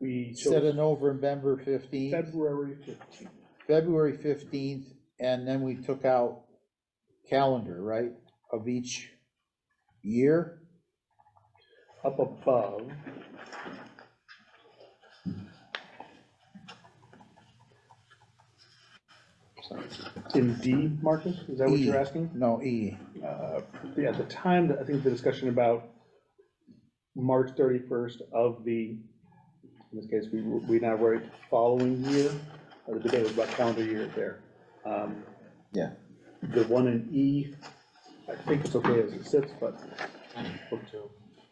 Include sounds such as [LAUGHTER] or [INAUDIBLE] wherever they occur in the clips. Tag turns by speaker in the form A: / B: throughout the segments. A: we
B: Set
A: chose
B: of November fifteenth,
A: February fifteenth.
B: February fifteenth, and then we took out calendar, right, of each year?
A: Up above, in D, Marcus, is that what you're
B: E.
A: asking?
B: No, E,
A: Uh, Yeah, at the time, I think the discussion about March 31st of the, in this case, we, we now write following year, or the debate was about calendar year there. Um,
B: yeah,
A: The one in E, I think it's okay as it sits, but.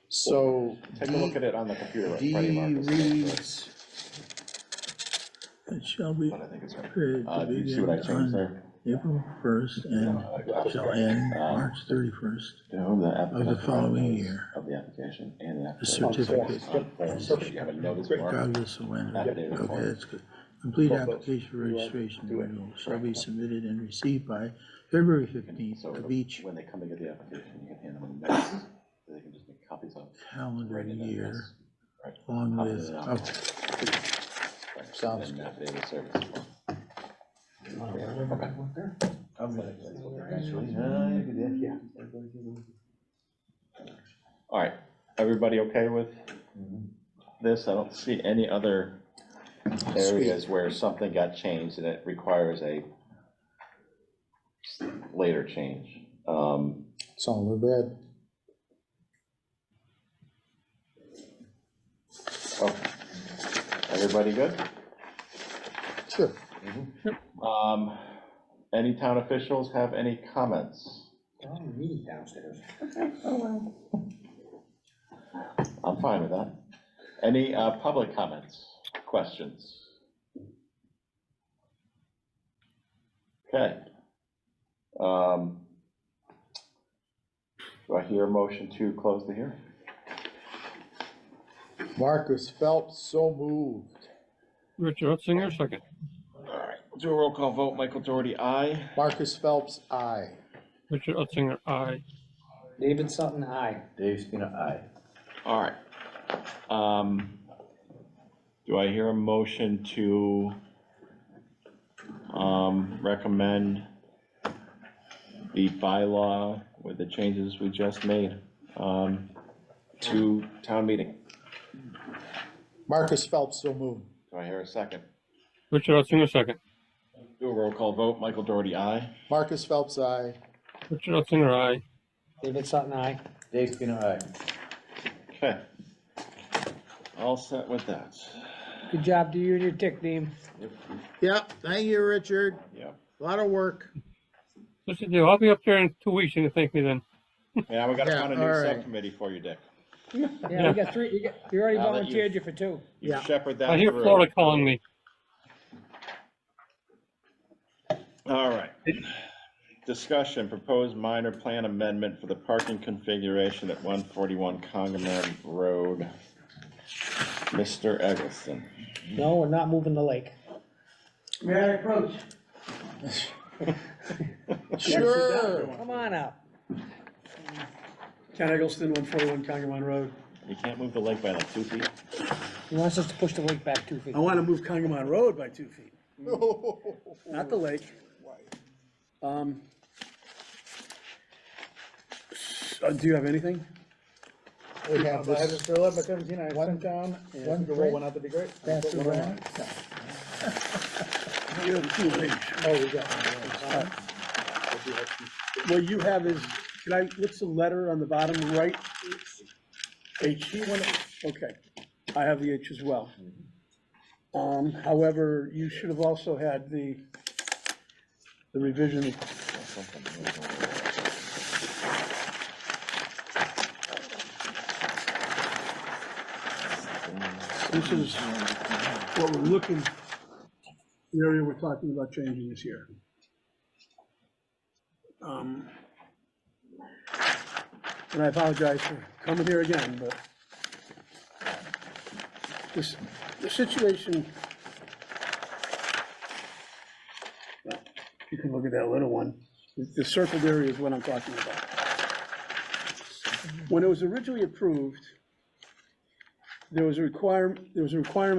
B: so.
C: Take a look
B: D-
C: at it on the computer. like
B: D
C: Freddie Marcus did,
B: reads,
D: It shall be
C: but I think it's right.
D: period
C: Uh,
D: to
C: do you see what I
D: begin
C: changed
D: on
C: there?
D: April first and shall end
C: Uh,
D: March thirty-first.
C: To whom the applicant.
D: Of the following
C: provides
D: year.
C: Of the application and the.
D: The
C: application
D: certificate.
C: on form, so You have a notice
A: Great.
C: mark.
D: Regardless of when,
C: That day
D: okay,
C: before.
D: that's good. Complete
A: Well, but
D: application for
A: you are
D: registration
A: doing it.
D: renewal shall be submitted and received by February fifteenth
C: So
D: of each
C: when they come to get the application, you can hand them a notice. so They can just make copies of. it,
D: calendar
C: write it in
D: year,
C: this, right,
D: along
C: copy
D: with,
C: it on.
D: oh,
C: Right,
B: Sounds
C: and that day of service as well. All right, everybody okay with this? I don't see any other areas where something got changed and it requires a later change. Um,
B: it's all in bed.
C: oh, Everybody good?
B: Sure.
C: Um, Any town officials have any comments? I'm fine with that. Any uh, public comments, questions? Okay. Um, Do I hear a motion to close the hearing?
B: Marcus Phelps, so moved.
E: Richard Hutzinger, second.
C: All right, we'll do a roll call vote. Michael Doherty, aye.
B: Marcus Phelps, aye.
E: Richard Hutzinger, aye.
F: David Sutton, aye.
G: Dave Spina, aye.
C: All right. Um, Do I hear a motion to um, recommend the bylaw with the changes we just made um, to town meeting?
B: Marcus Phelps, so moved.
C: Do I hear a second?
E: Richard Hutzinger, second.
C: Do a roll call vote. Michael Doherty, aye.
B: Marcus Phelps, aye.
E: Richard Hutzinger, aye.
F: David Sutton, aye.
G: Dave Spina, aye.
C: Okay. All set with that.
F: Good job, do you and your tick team.
B: Yep, thank you, Richard.
C: Yep.
B: A Lot of work.
E: Listen, Dale, I'll be up there in two weeks, you can thank me then.
C: Yeah, we got to
B: Yeah,
C: find a
B: all
C: new
B: right.
C: subcommittee for you, Dick.
F: Yeah, we got three, you got, you already
C: Now that you-
F: volunteered you for two.
C: You
B: Yeah.
C: shepherd that
E: I hear
C: through.
E: Florida calling me.
C: All right. Discussion, proposed minor plan amendment for the parking configuration at one forty-one Congamon Road. Mr. Eggleston.
F: No, we're not moving the lake.
D: [LAUGHS]
B: Sure.
F: Come on out.
A: Ken Eggleston, 141 Congamon Road.
C: You can't move the lake by like two feet.
F: He wants us to push the lake back two feet.
H: I want to move Congamon Road by two feet, not the lake. Um, so uh, Do you have anything?
B: We have this
A: for 1117, I
B: One-
A: down, and
B: one
A: if you could
B: print?
A: that'd be great. I'll
B: passed
A: put one on.
B: around.
H: You have two things.
B: Oh, we got one. yeah.
H: Uh, What you have is, can I, what's the letter on the bottom right? H, you want to, okay, I have the H as well. Um, however, you should have also had the, the revision. This is what we're looking, the area we're talking about changing is here. Um, And I apologize for coming here again, but this, the situation. Well, You can look at that little one. The- The circled area is what I'm talking about. When it was originally approved, there was a requirement, there was a requirement